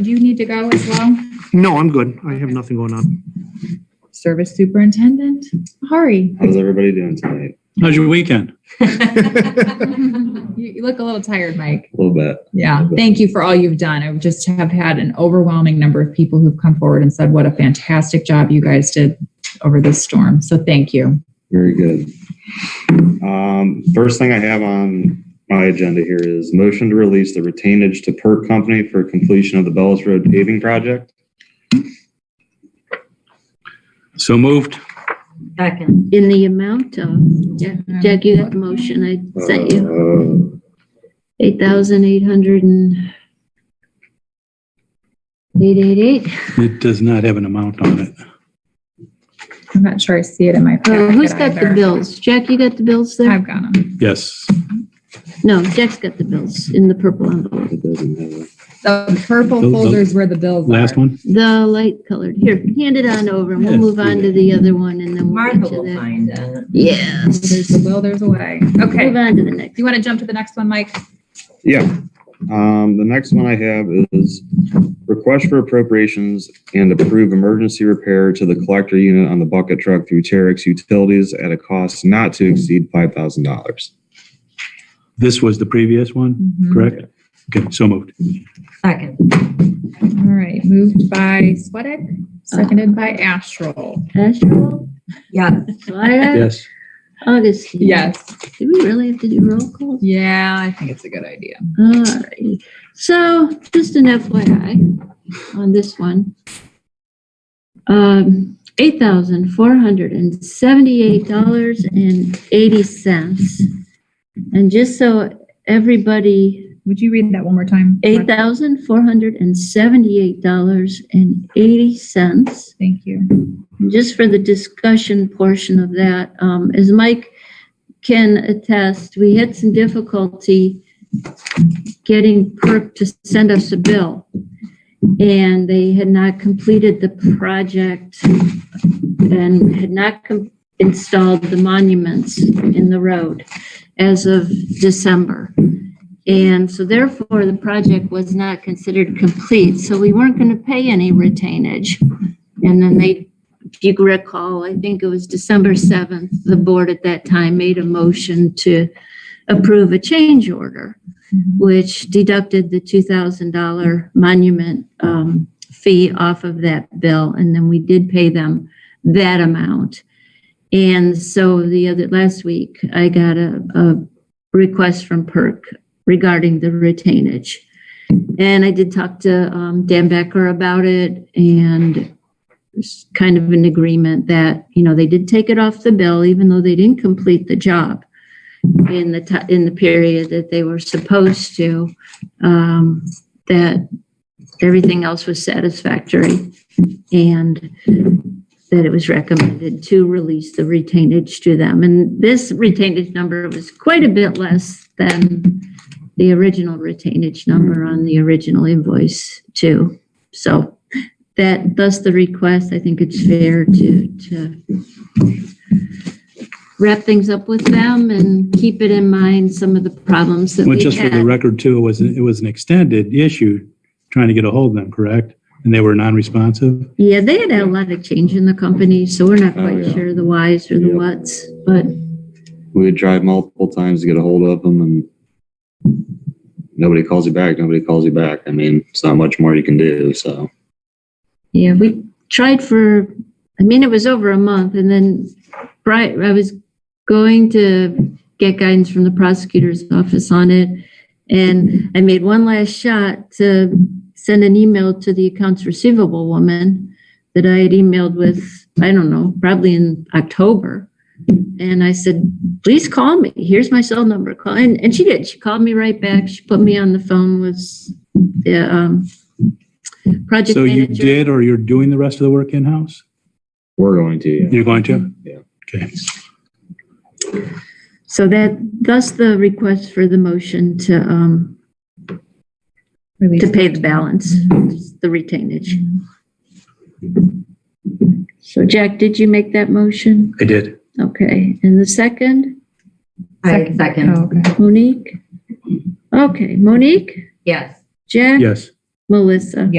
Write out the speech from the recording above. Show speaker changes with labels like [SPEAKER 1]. [SPEAKER 1] Do you need to go as well?
[SPEAKER 2] No, I'm good. I have nothing going on.
[SPEAKER 1] Service Superintendent, hurry.
[SPEAKER 3] How's everybody doing tonight?
[SPEAKER 4] How's your weekend?
[SPEAKER 1] You, you look a little tired, Mike.
[SPEAKER 3] A little bit.
[SPEAKER 1] Yeah, thank you for all you've done. I just have had an overwhelming number of people who've come forward and said what a fantastic job you guys did over this storm. So thank you.
[SPEAKER 3] Very good. Um, first thing I have on my agenda here is motion to release the retainage to Perk Company for completion of the Bellis Road paving project.
[SPEAKER 4] So moved.
[SPEAKER 5] Second.
[SPEAKER 6] in the amount of, yeah, Jack, you got the motion I sent you,
[SPEAKER 3] Uh,
[SPEAKER 6] eight thousand eight hundred and eight eight eight.
[SPEAKER 4] It does not have an amount on it.
[SPEAKER 1] I'm not sure I see it in my packet.
[SPEAKER 6] Uh, who's got the
[SPEAKER 1] either.
[SPEAKER 6] bills? Jack, you got the bills there?
[SPEAKER 1] I've got them.
[SPEAKER 4] Yes.
[SPEAKER 6] No, Jack's got the bills in the purple envelope,
[SPEAKER 3] It doesn't have a-
[SPEAKER 1] The purple
[SPEAKER 4] The- the
[SPEAKER 1] folder's where the bills are.
[SPEAKER 4] Last one?
[SPEAKER 6] the light colored. Here, hand it on over and we'll
[SPEAKER 4] Yes,
[SPEAKER 6] move
[SPEAKER 4] do
[SPEAKER 6] on to
[SPEAKER 4] that.
[SPEAKER 6] the other one and then we'll
[SPEAKER 5] Martha
[SPEAKER 6] get to
[SPEAKER 5] will
[SPEAKER 6] that.
[SPEAKER 5] find it.
[SPEAKER 6] Yes.
[SPEAKER 1] There's a will, there's a way. Okay.
[SPEAKER 6] Move
[SPEAKER 1] Do
[SPEAKER 6] on to the next.
[SPEAKER 1] you want to jump to the next one, Mike?
[SPEAKER 3] Yeah. Um, the next one I have is request for appropriations and approve emergency repair to the collector unit on the bucket truck through Terex Utilities at a cost not to exceed five thousand dollars.
[SPEAKER 4] This was the previous one, correct? Okay, so moved.
[SPEAKER 5] Second.
[SPEAKER 1] All right, moved by Sweattick, seconded by Astral.
[SPEAKER 6] Asherle,
[SPEAKER 5] Yeah.
[SPEAKER 6] Swire,
[SPEAKER 4] Yes.
[SPEAKER 6] Augustine.
[SPEAKER 1] Yes.
[SPEAKER 6] Do we really have to do roll call?
[SPEAKER 1] Yeah, I think it's a good idea.
[SPEAKER 6] All right. So just an FYI on this one. Um, eight thousand four hundred and seventy-eight dollars and eighty cents. And just so everybody,
[SPEAKER 1] Would you read that one more time?
[SPEAKER 6] eight thousand four hundred and seventy-eight dollars and eighty cents.
[SPEAKER 1] Thank you.
[SPEAKER 6] Just for the discussion portion of that, um, as Mike can attest, we had some difficulty getting PERC to send us a bill. And they had not completed the project and had not com- installed the monuments in the road as of December. And so therefore, the project was not considered complete, so we weren't going to pay any retainage. And then they if you recall, I think it was December 7th, the board at that time made a motion to approve a change order,
[SPEAKER 1] Mhm.
[SPEAKER 6] which deducted the $2,000 monument um, fee off of that bill, and then we did pay them that amount. And so the other, last week, I got a, a request from PERC regarding the retainage. And I did talk to um, Dan Becker about it, and there's kind of an agreement that, you know, they did take it off the bill, even though they didn't complete the job in the, ti- in the period that they were supposed to, um, that everything else was satisfactory and that it was recommended to release the retainage to them. And this retainage number was quite a bit less than the original retainage number on the original invoice too. So that, thus the request, I think it's fair to, to wrap things up with them and keep it in mind, some of the problems that
[SPEAKER 4] Well,
[SPEAKER 6] we
[SPEAKER 4] just for the
[SPEAKER 6] had.
[SPEAKER 4] record too, it was, it was an extended issue trying to get a hold of them, correct? And they were non-responsive?
[SPEAKER 6] Yeah, they had a lot of change in the company, so we're not
[SPEAKER 3] Oh,
[SPEAKER 6] quite
[SPEAKER 3] yeah.
[SPEAKER 6] sure the whys or the
[SPEAKER 3] Yep.
[SPEAKER 6] whats, but
[SPEAKER 3] We would tried multiple times to get a hold of them and nobody calls you back, nobody calls you back. I mean, it's not much more you can do, so.
[SPEAKER 6] yeah, we tried for, I mean, it was over a month and then Brian, I was going to get guidance from the prosecutor's office on it. And I made one last shot to send an email to the accounts receivable woman that I had emailed with, I don't know, probably in October. And I said, please call me. Here's my cell number. Call. And, and she did. She called me right back. She put me on the phone with the, um, project
[SPEAKER 4] So you
[SPEAKER 6] manager.
[SPEAKER 4] did, or you're doing the rest of the work in-house?
[SPEAKER 3] We're going to, yeah.
[SPEAKER 4] You're going to?
[SPEAKER 3] Yeah.
[SPEAKER 4] Okay.
[SPEAKER 6] So that, thus the request for the motion to, um,
[SPEAKER 1] Release.
[SPEAKER 6] to pay the balance, the retainage. So Jack, did you make that motion?
[SPEAKER 4] I did.
[SPEAKER 6] Okay, and the second,
[SPEAKER 5] I second.
[SPEAKER 1] Oh, okay.
[SPEAKER 6] Monique? Okay, Monique,
[SPEAKER 5] Yes.
[SPEAKER 6] Jack,
[SPEAKER 4] Yes.
[SPEAKER 6] Melissa?